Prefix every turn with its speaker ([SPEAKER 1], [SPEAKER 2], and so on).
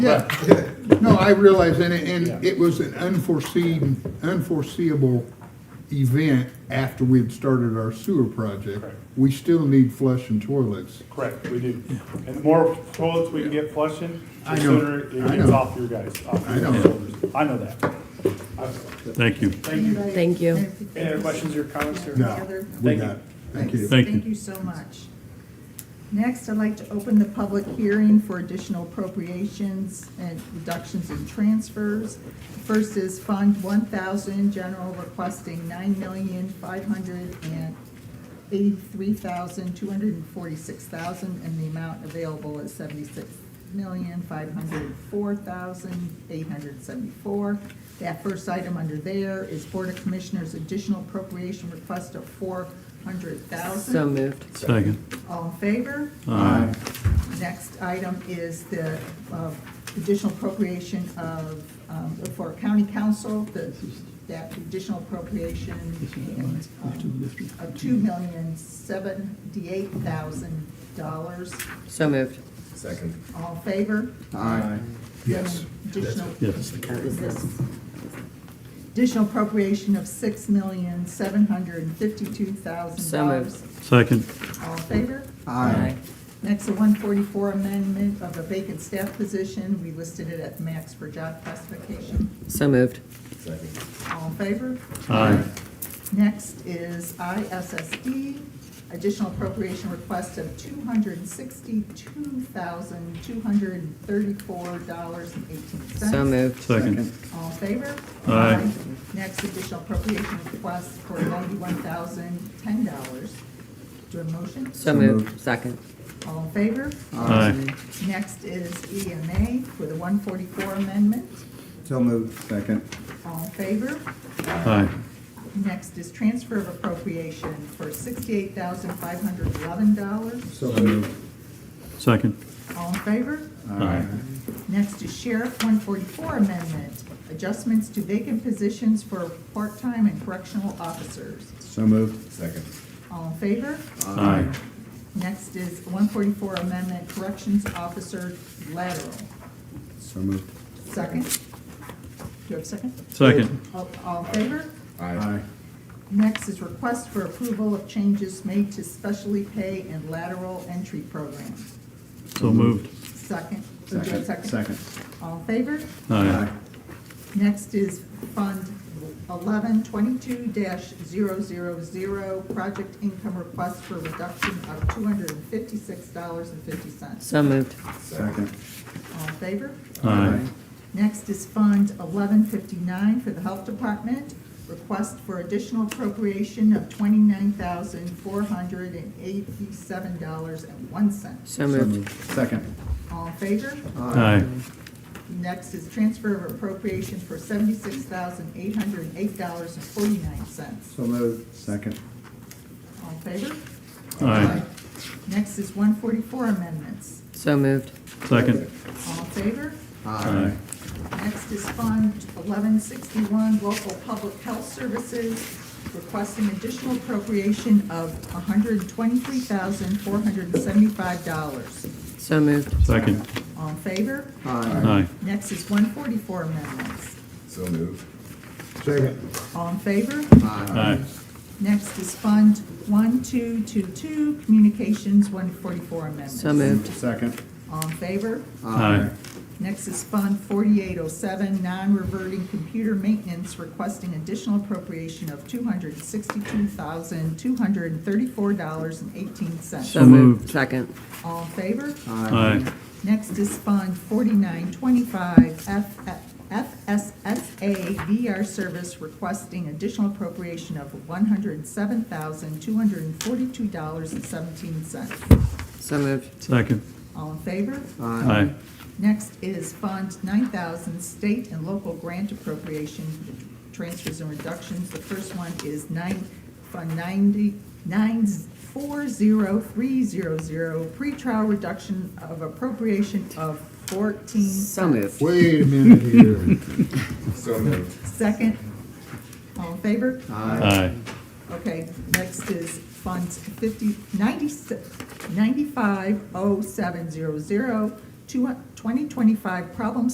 [SPEAKER 1] Yeah, no, I realize, and it, and it was an unforeseen, unforeseeable event after we had started our sewer project.
[SPEAKER 2] Correct.
[SPEAKER 1] We still need flush and toilets.
[SPEAKER 2] Correct, we do. And the more toilets we can get flushing,
[SPEAKER 1] I
[SPEAKER 2] the
[SPEAKER 1] know.
[SPEAKER 2] sooner it
[SPEAKER 1] I
[SPEAKER 2] gets
[SPEAKER 1] know.
[SPEAKER 2] off your guys, off
[SPEAKER 1] I
[SPEAKER 2] your
[SPEAKER 1] know.
[SPEAKER 2] shoulders. I know that. I've-
[SPEAKER 3] Thank you.
[SPEAKER 2] Thank you.
[SPEAKER 4] Thank you.
[SPEAKER 2] Any other questions or comments here?
[SPEAKER 1] No, we
[SPEAKER 2] Thank you.
[SPEAKER 1] got, it. thank you.
[SPEAKER 3] Thank you.
[SPEAKER 5] Thank you so much. Next, I'd like to open the public hearing for additional appropriations and reductions in transfers. First is Fund one thousand, general requesting nine million, five hundred and eighty-three thousand, two hundred and forty-six thousand, and the amount available is seventy-six million, five hundred four thousand, eight hundred seventy-four. That first item under there is Board of Commissioners additional appropriation request of four hundred thousand.
[SPEAKER 4] So moved.
[SPEAKER 3] Second.
[SPEAKER 5] All in favor?
[SPEAKER 3] Aye.
[SPEAKER 5] Next item is the uh, additional appropriation of, um, for county council, the, that additional appropriation and, um, of two million seventy-eight thousand dollars.
[SPEAKER 4] So moved.
[SPEAKER 6] Second.
[SPEAKER 5] All in favor?
[SPEAKER 6] Aye.
[SPEAKER 1] Yes.
[SPEAKER 5] Additional.
[SPEAKER 3] Yes.
[SPEAKER 5] is this? Additional appropriation of six million seven hundred and fifty-two thousand
[SPEAKER 4] So
[SPEAKER 5] dollars.
[SPEAKER 4] moved.
[SPEAKER 3] Second.
[SPEAKER 5] All in favor?
[SPEAKER 6] Aye.
[SPEAKER 5] Next, a one forty-four amendment of a vacant staff position. We listed it at max for job classification.
[SPEAKER 4] So moved.
[SPEAKER 6] Second.
[SPEAKER 5] All in favor?
[SPEAKER 3] Aye.
[SPEAKER 5] Next is ISSD, E, additional appropriation request of two hundred and sixty-two thousand, two hundred and thirty-four dollars and eighteen cents.
[SPEAKER 4] So moved.
[SPEAKER 3] Second.
[SPEAKER 5] All in favor?
[SPEAKER 3] Aye.
[SPEAKER 5] Next, additional appropriation request for ninety-one thousand, ten dollars. Do a motion?
[SPEAKER 4] So moved. Second.
[SPEAKER 5] All in favor?
[SPEAKER 3] Aye.
[SPEAKER 5] Next is EMA for the one forty-four amendment.
[SPEAKER 6] So moved. Second.
[SPEAKER 5] All in favor?
[SPEAKER 3] Aye.
[SPEAKER 5] Next is transfer of appropriation for sixty-eight thousand five hundred eleven dollars.
[SPEAKER 6] So moved.
[SPEAKER 3] Second.
[SPEAKER 5] All in favor?
[SPEAKER 3] Aye.
[SPEAKER 5] Next is sheriff one forty-four amendment, adjustments to vacant positions for part-time and correctional officers.
[SPEAKER 6] So moved. Second.
[SPEAKER 5] All in favor?
[SPEAKER 3] Aye.
[SPEAKER 5] Next is one forty-four amendment, corrections officer lateral.
[SPEAKER 6] So moved.
[SPEAKER 5] Second? Do you have a second?
[SPEAKER 3] Second.
[SPEAKER 5] All- All in favor?
[SPEAKER 6] Aye.
[SPEAKER 5] Next is request for approval of changes made to specially pay and lateral entry program.
[SPEAKER 3] So moved.
[SPEAKER 5] Second, or do you have a second? All in favor?
[SPEAKER 3] Aye.
[SPEAKER 5] Next is Fund eleven twenty-two 0 project income request for reduction of two hundred and fifty-six dollars and fifty cents.
[SPEAKER 4] So moved.
[SPEAKER 6] Second.
[SPEAKER 5] All in favor?
[SPEAKER 3] Aye.
[SPEAKER 5] Next is Fund eleven fifty-nine for the Health Department, request for additional appropriation of twenty-nine thousand four hundred and eighty-seven dollars and one cent.
[SPEAKER 4] So moved.
[SPEAKER 6] Second.
[SPEAKER 5] All in favor?
[SPEAKER 3] Aye.
[SPEAKER 5] Next is transfer of appropriation for seventy-six thousand eight hundred and eight dollars and forty-nine cents.
[SPEAKER 6] So moved. Second.
[SPEAKER 5] All in favor?
[SPEAKER 3] Aye.
[SPEAKER 5] Next is one forty-four amendments.
[SPEAKER 4] So moved.
[SPEAKER 3] Second.
[SPEAKER 5] All in favor?
[SPEAKER 3] Aye.
[SPEAKER 5] Next is Fund eleven sixty-one, local public health services, requesting additional appropriation of hundred and twenty-three thousand, four hundred and seventy-five dollars.
[SPEAKER 4] So moved.
[SPEAKER 3] Second.
[SPEAKER 5] All in favor?
[SPEAKER 3] Aye.
[SPEAKER 5] Next is one forty-four amendments.
[SPEAKER 6] So moved.
[SPEAKER 1] Second,
[SPEAKER 5] All in favor?
[SPEAKER 3] Aye.
[SPEAKER 5] Next is Fund one two two two, communications, one forty-four amendments.
[SPEAKER 4] So moved.
[SPEAKER 6] Second.
[SPEAKER 5] All in favor?
[SPEAKER 3] Aye.
[SPEAKER 5] Next is Fund 4807, non-reverting computer maintenance, requesting additional appropriation of $262,234.18.
[SPEAKER 4] So
[SPEAKER 3] moved.
[SPEAKER 4] moved. Second.
[SPEAKER 5] All in favor?
[SPEAKER 3] Aye.
[SPEAKER 5] Next is Fund 4925, F- FSSA VR service, requesting additional appropriation of $107,242.17.
[SPEAKER 4] So moved.
[SPEAKER 3] Second.
[SPEAKER 5] All in favor?
[SPEAKER 3] Aye.
[SPEAKER 5] Next is Fund 9,000, state and local grant appropriation transfers and reductions. The first one is nine, Fund 90, 940300, pretrial reduction of appropriation of 14.
[SPEAKER 4] So moved.
[SPEAKER 1] wait a minute here.
[SPEAKER 6] So moved.
[SPEAKER 5] Second, all in favor?
[SPEAKER 3] Aye.
[SPEAKER 5] Okay, next is oh Fund 50, 90 950700, two- 2025 Problem